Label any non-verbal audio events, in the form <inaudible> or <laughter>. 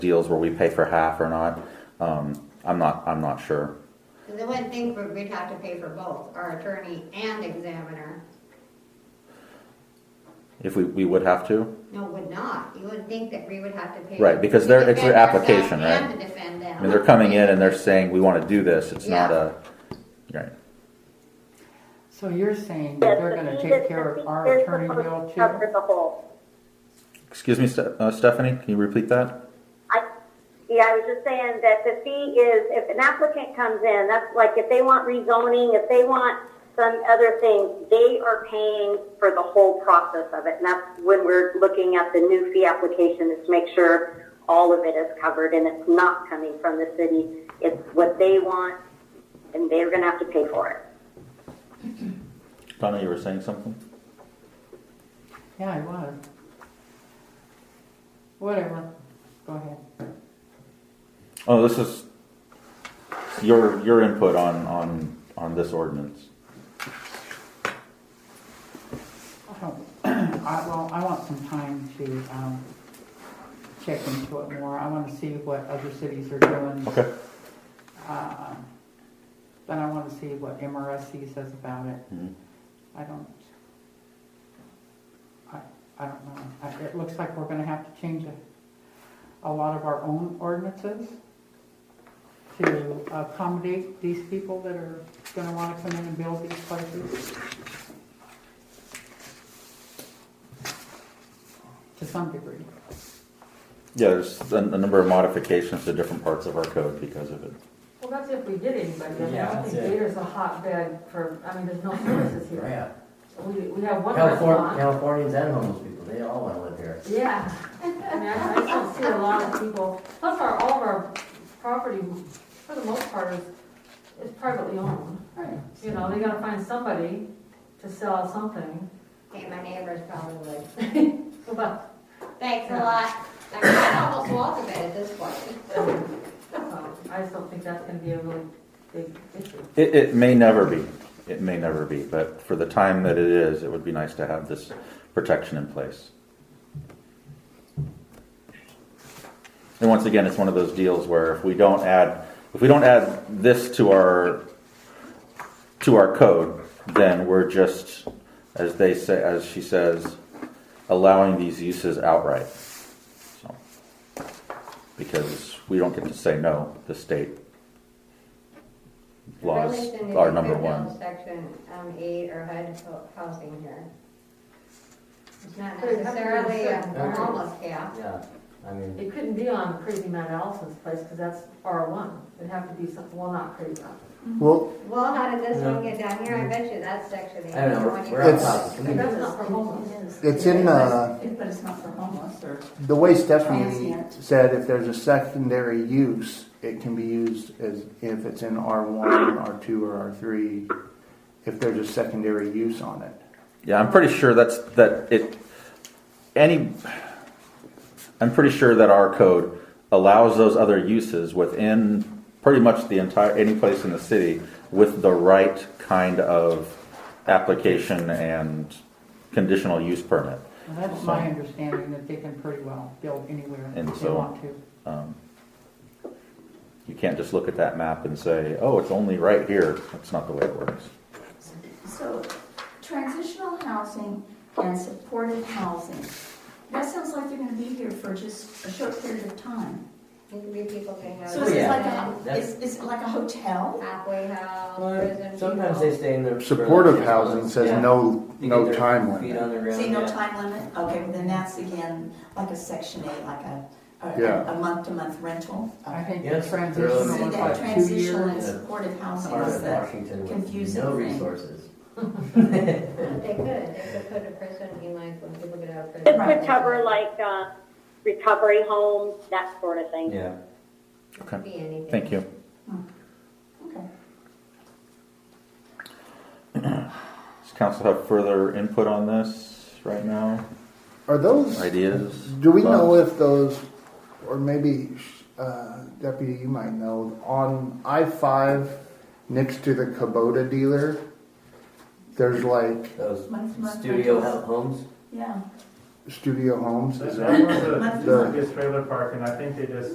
deals where we pay for half or not. Um, I'm not, I'm not sure. Because I wouldn't think we- we'd have to pay for both, our attorney and examiner. If we, we would have to, No, would not. You would think that we would have to pay. Right, because to they're- it's defend their application, ourselves right? And to defend them. I mean, they're coming in and they're saying, we wanna do this, it's not Yeah. a, right. So you're saying that Yes, they're but gonna he take is- care of he our is attorney supposed to bill too? Cover the whole. Excuse me, Ste- uh, Stephanie, can you repeat that? I, yeah, I was just saying that the fee is, if an applicant comes in, that's like if they want rezoning, if they want some other thing, they are paying for the whole process of it. And that's when we're looking at the new fee application is to make sure all of it is covered and it's not coming from the city. It's what they want and they're going to have to pay for it. Donna, you were saying something? Yeah, I was. Whatever, go ahead. Oh, this is your, your input on, on, on this ordinance. I don't- <clears throat> I, well, I want some time to, um, check into it more. I wanna see what other cities are doing. Okay. Um, Then I wanna see what MRSC says about it. Mhm. I don't, I, I don't know. I- It looks like we're gonna have to change a, a lot of our own ordinances to accommodate these people that are gonna wanna come in and build these places. To some degree. Yeah, there's a, a number of modifications to different parts of our code because of it. Well, that's if we did anybody, I mean, I Yeah, don't that's think it. Gator's a hotbed for, I mean, <clears throat> there's no services here. Yeah, We, we have one California, restaurant. Californians and homeless people, they all wanna live here. Yeah, I mean, I I don't see a lot of people, plus our, all of our property, for the most part, is, is privately owned. Right. You know, they gotta find somebody to sell something, Okay, my neighbors probably would. but, Thanks a lot. Like, I'd almost walk a bit at this point. um, I just don't think that's gonna be a really big issue. It, it may never be. It may never be, but for the time that it is, it would be nice to have this protection in place. And once again, it's one of those deals where if we don't add, if we don't add this to our, to our code, then we're just, as they say, as she says, allowing these uses outright. So, Because we don't get to say no, the state laws Relation to are the number Good one. Bill Section um, eight or HUD ho- housing here. It's not But it has to be necessarily a certain boundaries. homeless camp. Yeah, I mean, It couldn't be on Crazy Matt Allison's place, because that's R one, it'd have to be some, well, not Crazy Matt. Well, Well, how did this one No. get down here? I bet you that's section eight. I don't the know, one you- we're on It's- top of the But community. that's not for homeless. it's in, uh, But it's not for homeless or. the way Stephanie Transient. said, if there's a secondary use, it can be used as, if it's in R1, R2, or R3, if there's a secondary use on it. Yeah, I'm pretty sure that's, that it, any, I'm pretty sure that our code allows those other uses within pretty much the entire, any place in the city with the right kind of application and conditional use permit. And that's my understanding, that they can pretty well build anywhere And if they so- want to. Um, You can't just look at that map and say, oh, it's only right here. That's not the way it works. So transitional housing and supportive housing, that sounds like they're gonna be here for just a short period of time. You can be people can have So is it Yeah. like a, is, That's- is it like a hotel? halfway house, prison Well, people. Sometimes they stay in their. Supportive housing says Yeah. no, They get no their time Feet limit. on the ground, See, no yeah. time limit? Okay, then that's again like a section eight, like a, Yeah. a, a month-to-month rental. I think the Yes, transitional really. See, was that like two transitional and years. years. supportive housing Part is of that, Washington with confusing no thing. resources. They could, they could put a prison in like when people get out of This prison. Right. could cover like, uh, recovery homes, that sort of thing. Yeah. Okay, Be anything. thank you. okay. Does council have further input on this right now? Are those, Ideas? do we know Thoughts? if those, or maybe, uh, Deputy, you might know, on I-5 next to the Kubota dealer, there's like Those Month-to-month studio rentals. homes. Yeah. studio homes, is that? That was a- That's the- biggest trailer park, and I think they just